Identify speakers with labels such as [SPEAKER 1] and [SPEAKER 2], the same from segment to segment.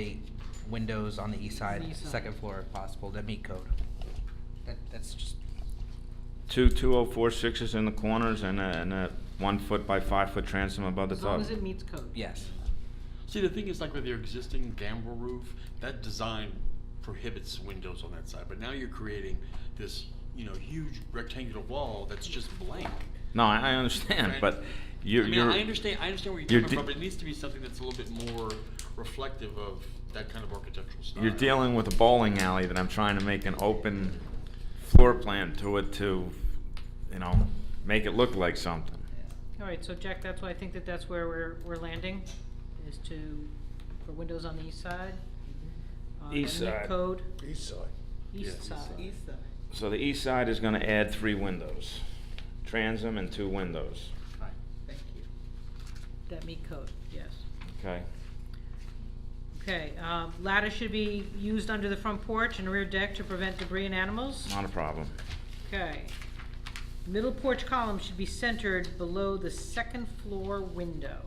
[SPEAKER 1] eight windows on the east side,
[SPEAKER 2] East side.
[SPEAKER 1] second floor if possible, that meet code. That, that's just,
[SPEAKER 3] Two 2046s in the corners and a, and a one foot by five foot transom above the
[SPEAKER 2] As long
[SPEAKER 3] tub.
[SPEAKER 2] as it meets code.
[SPEAKER 1] yes.
[SPEAKER 4] See, the thing is, like with your existing gambrel roof, that design prohibits windows on that side, but now you're creating this, you know, huge rectangular wall that's just blank.
[SPEAKER 3] No, I, I understand,
[SPEAKER 4] Right.
[SPEAKER 3] but you're,
[SPEAKER 4] I mean,
[SPEAKER 3] you're.
[SPEAKER 4] I understand, I understand where
[SPEAKER 3] you're
[SPEAKER 4] you're coming
[SPEAKER 3] de-
[SPEAKER 4] from, but it needs to be something that's a little bit more reflective of that kind of architectural style.
[SPEAKER 3] You're dealing with a bowling alley that I'm trying to make an open floor plan to it to, you know, make it look like something.
[SPEAKER 2] All right, so Jack, that's why I think that that's where we're, we're landing, is to, for windows on the east side. uh, that
[SPEAKER 3] East
[SPEAKER 2] meet
[SPEAKER 3] side.
[SPEAKER 2] Code,
[SPEAKER 5] East side.
[SPEAKER 4] Yeah,
[SPEAKER 2] east
[SPEAKER 4] east
[SPEAKER 2] side.
[SPEAKER 4] side. East
[SPEAKER 3] So the east side is gonna add three windows, transom and two windows,
[SPEAKER 1] Fine, thank you.
[SPEAKER 2] That meet code, yes.
[SPEAKER 3] okay?
[SPEAKER 2] Okay, um, ladder should be used under the front porch and rear deck to prevent debris and animals.
[SPEAKER 3] Not a problem.
[SPEAKER 2] Okay. Middle porch column should be centered below the second floor window.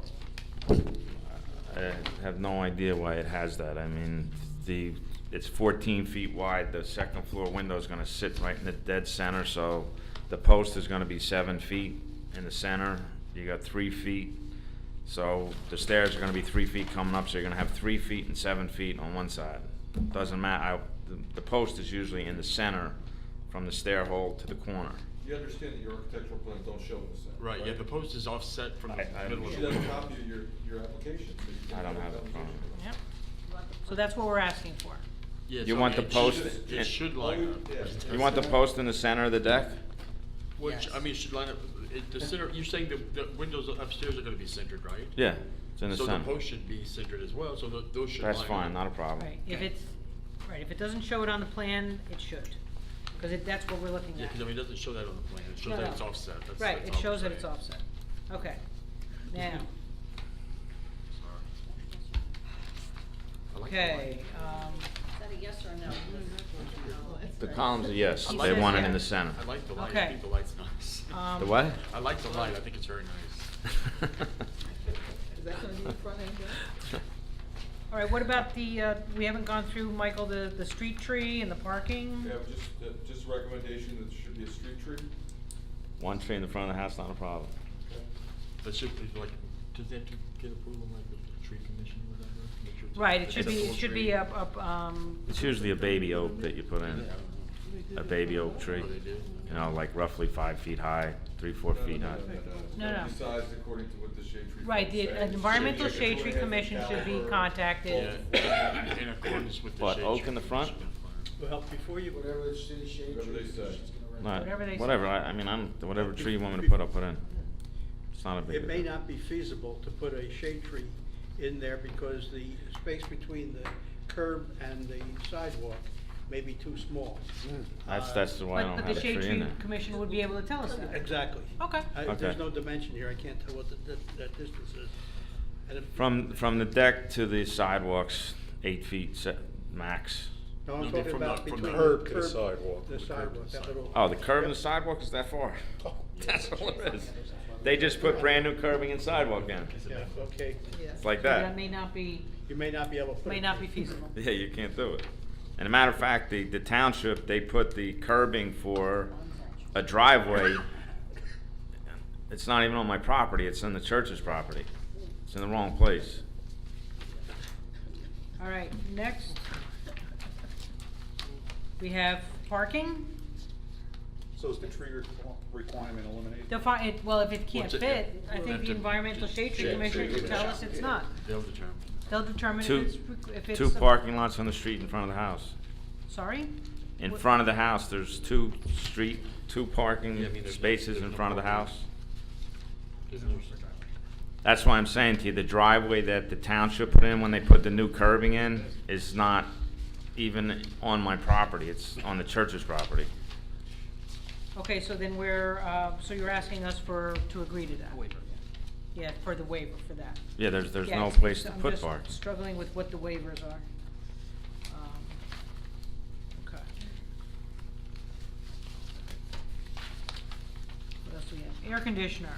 [SPEAKER 3] I have no idea why it has that. I mean, the, it's fourteen feet wide, the second floor window's gonna sit right in the dead center, so the post is gonna be seven feet in the center. You got three feet, so the stairs are gonna be three feet coming up, so you're gonna have three feet and seven feet on one side. Doesn't matter, I, the, the post is usually in the center from the stair hole to the corner.
[SPEAKER 6] You understand that your architectural plans don't show this, then,
[SPEAKER 4] Right, yeah, the post is offset from
[SPEAKER 3] I- I
[SPEAKER 4] the middle
[SPEAKER 6] You
[SPEAKER 4] of
[SPEAKER 6] should
[SPEAKER 4] the
[SPEAKER 6] have a
[SPEAKER 4] window.
[SPEAKER 6] copy of your, your application. so you can
[SPEAKER 3] I don't
[SPEAKER 6] look
[SPEAKER 3] have
[SPEAKER 6] at
[SPEAKER 3] it
[SPEAKER 6] the
[SPEAKER 3] in front of me.
[SPEAKER 6] application.
[SPEAKER 2] Yep. So that's what we're asking for.
[SPEAKER 4] Yeah,
[SPEAKER 3] You
[SPEAKER 4] so
[SPEAKER 3] want
[SPEAKER 4] it
[SPEAKER 3] the
[SPEAKER 4] should-
[SPEAKER 3] post-
[SPEAKER 4] It should line up.
[SPEAKER 6] Yeah.
[SPEAKER 3] You want the post in the center of the deck?
[SPEAKER 4] Which,
[SPEAKER 1] Yes.
[SPEAKER 4] I mean, should line up, it, the center, you're saying the, the windows upstairs are gonna be centered, right?
[SPEAKER 3] Yeah, it's in the
[SPEAKER 4] So the
[SPEAKER 3] center.
[SPEAKER 4] post should be centered as well, so tho- those should line
[SPEAKER 3] That's fine,
[SPEAKER 4] up.
[SPEAKER 3] not a problem.
[SPEAKER 2] Right, if
[SPEAKER 1] Okay.
[SPEAKER 2] it's, right, if it doesn't show it on the plan, it should, because it, that's what we're looking
[SPEAKER 4] Yeah,
[SPEAKER 2] at.
[SPEAKER 4] because I mean, it doesn't show that on the plan, it
[SPEAKER 2] No,
[SPEAKER 4] shows that
[SPEAKER 2] no.
[SPEAKER 4] it's offset, that's, that's all
[SPEAKER 2] Right, it shows
[SPEAKER 4] I'm
[SPEAKER 2] that it's
[SPEAKER 4] saying.
[SPEAKER 2] offset. Okay, now,
[SPEAKER 4] Sorry. I like the
[SPEAKER 2] okay,
[SPEAKER 4] line.
[SPEAKER 2] um,
[SPEAKER 3] The columns are yes,
[SPEAKER 2] He
[SPEAKER 3] they
[SPEAKER 2] says
[SPEAKER 3] want it in the
[SPEAKER 2] yes.
[SPEAKER 3] center.
[SPEAKER 4] I like the light,
[SPEAKER 2] Okay.
[SPEAKER 4] I think the light's nice.
[SPEAKER 2] Um,
[SPEAKER 3] The what?
[SPEAKER 4] I like the light, I think it's very nice.
[SPEAKER 3] Is that gonna be the front end?
[SPEAKER 2] all right, what about the, uh, we haven't gone through, Michael, the, the street tree and the parking?
[SPEAKER 6] We have just, uh, just a recommendation that there should be a street tree.
[SPEAKER 3] One tree in the front of the house, not a problem.
[SPEAKER 4] But should, be like, does that to get approval, like, with the tree commission or whatever? Make sure it's
[SPEAKER 2] Right, it
[SPEAKER 4] a
[SPEAKER 2] should be, it
[SPEAKER 4] sensible
[SPEAKER 2] should
[SPEAKER 4] tree.
[SPEAKER 2] be up, up, um,
[SPEAKER 3] It's usually a baby oak that you put
[SPEAKER 4] Yeah, I don't
[SPEAKER 3] in,
[SPEAKER 4] know.
[SPEAKER 3] a baby oak tree.
[SPEAKER 4] Oh, they do?
[SPEAKER 3] You know, like roughly five feet high, three, four
[SPEAKER 6] No, no,
[SPEAKER 3] feet
[SPEAKER 6] no,
[SPEAKER 3] high.
[SPEAKER 6] no,
[SPEAKER 2] No, no.
[SPEAKER 6] Uh, Besides, according to what the shade tree.
[SPEAKER 2] Right,
[SPEAKER 6] plan
[SPEAKER 2] the
[SPEAKER 6] says.
[SPEAKER 2] Environmental
[SPEAKER 6] Should be
[SPEAKER 2] Shade Tree
[SPEAKER 6] two and a half
[SPEAKER 2] Commission should be
[SPEAKER 6] caliber,
[SPEAKER 2] contacted.
[SPEAKER 4] Yeah, in accordance with the
[SPEAKER 3] What,
[SPEAKER 4] shade
[SPEAKER 3] oak
[SPEAKER 4] tree
[SPEAKER 3] in the front?
[SPEAKER 4] commission.
[SPEAKER 7] Well, before you,
[SPEAKER 5] Whatever the city shade
[SPEAKER 6] Whatever
[SPEAKER 5] tree
[SPEAKER 6] they say.
[SPEAKER 5] commission's gonna
[SPEAKER 3] Right,
[SPEAKER 5] recommend.
[SPEAKER 2] Whatever they say.
[SPEAKER 3] Whatever, I, I mean, I'm, whatever tree you want me to put, I'll put in. It's not a big.
[SPEAKER 7] it may
[SPEAKER 3] deal.
[SPEAKER 7] not be feasible to put a shade tree in there because the space between the curb and the sidewalk may be too small.
[SPEAKER 3] That's,
[SPEAKER 7] Uh,
[SPEAKER 3] that's why I
[SPEAKER 2] but,
[SPEAKER 3] don't
[SPEAKER 2] but
[SPEAKER 3] have
[SPEAKER 2] the
[SPEAKER 3] a tree
[SPEAKER 2] shade
[SPEAKER 3] in
[SPEAKER 2] tree
[SPEAKER 3] there.
[SPEAKER 2] commission would be able to tell us that.
[SPEAKER 7] Exactly.
[SPEAKER 2] Okay.
[SPEAKER 7] I- There's
[SPEAKER 3] Okay.
[SPEAKER 7] no dimension here, I can't tell what the, that- that distance is. And if-
[SPEAKER 3] From, from the deck to the sidewalks, eight feet se- max.
[SPEAKER 7] No,
[SPEAKER 4] No,
[SPEAKER 7] I'm talking
[SPEAKER 4] from the-
[SPEAKER 7] about
[SPEAKER 4] from the
[SPEAKER 7] between the
[SPEAKER 4] curb
[SPEAKER 7] curb.
[SPEAKER 6] to the sidewalk.
[SPEAKER 7] The
[SPEAKER 6] From
[SPEAKER 4] the curb to
[SPEAKER 7] sidewalk,
[SPEAKER 4] the
[SPEAKER 7] that little.
[SPEAKER 3] Oh, the curb and the sidewalk is that far?
[SPEAKER 4] Oh,
[SPEAKER 3] That's all it is. They just put brand new curbing and sidewalk in.
[SPEAKER 7] Yeah, okay,
[SPEAKER 3] It's like
[SPEAKER 2] That
[SPEAKER 3] that.
[SPEAKER 2] may not be,
[SPEAKER 7] you may not be able to put.
[SPEAKER 2] may
[SPEAKER 7] it
[SPEAKER 2] not be
[SPEAKER 7] there.
[SPEAKER 2] feasible.
[SPEAKER 3] Yeah, you can't do it. And a matter of fact, the, the township, they put the curbing for a driveway. It's not even on my property, it's on the church's property. It's in the wrong place.
[SPEAKER 2] All right, next. We have parking.
[SPEAKER 5] So is the tree requ- requirement eliminated?
[SPEAKER 2] Defi- it well, if it can't
[SPEAKER 4] What's it-
[SPEAKER 2] fit, I think
[SPEAKER 4] That's
[SPEAKER 2] the
[SPEAKER 4] a-
[SPEAKER 2] environmental shade tree
[SPEAKER 4] shade
[SPEAKER 2] commission
[SPEAKER 4] tree
[SPEAKER 2] should tell us
[SPEAKER 4] commission.
[SPEAKER 2] it's not.
[SPEAKER 4] They'll determine.
[SPEAKER 2] They'll determine if
[SPEAKER 3] Two-
[SPEAKER 2] it's, re- if it's.
[SPEAKER 3] Two parking lots on the street in front of the house.
[SPEAKER 2] Sorry?
[SPEAKER 3] In
[SPEAKER 2] What-
[SPEAKER 3] front of the house, there's two street, two parking
[SPEAKER 4] Yeah, I mean, there's no-
[SPEAKER 3] spaces
[SPEAKER 4] there's
[SPEAKER 3] in
[SPEAKER 4] no
[SPEAKER 3] front of the
[SPEAKER 4] parking.
[SPEAKER 3] house.
[SPEAKER 4] There's no-
[SPEAKER 3] That's why I'm saying to you, the driveway that the township put in when they put the new curbing in is not even on my property, it's on the church's property.
[SPEAKER 2] Okay, so then we're, uh, so you're asking us for, to agree to that?
[SPEAKER 1] Waiver,
[SPEAKER 2] Yeah, for the waiver for that.
[SPEAKER 3] Yeah, there's, there's
[SPEAKER 2] Yeah,
[SPEAKER 3] no
[SPEAKER 2] it's-
[SPEAKER 3] place to
[SPEAKER 2] I'm
[SPEAKER 3] put
[SPEAKER 2] just
[SPEAKER 3] park.
[SPEAKER 2] Struggling with what the waivers are. Um, Okay. What else do we have? Air conditioner.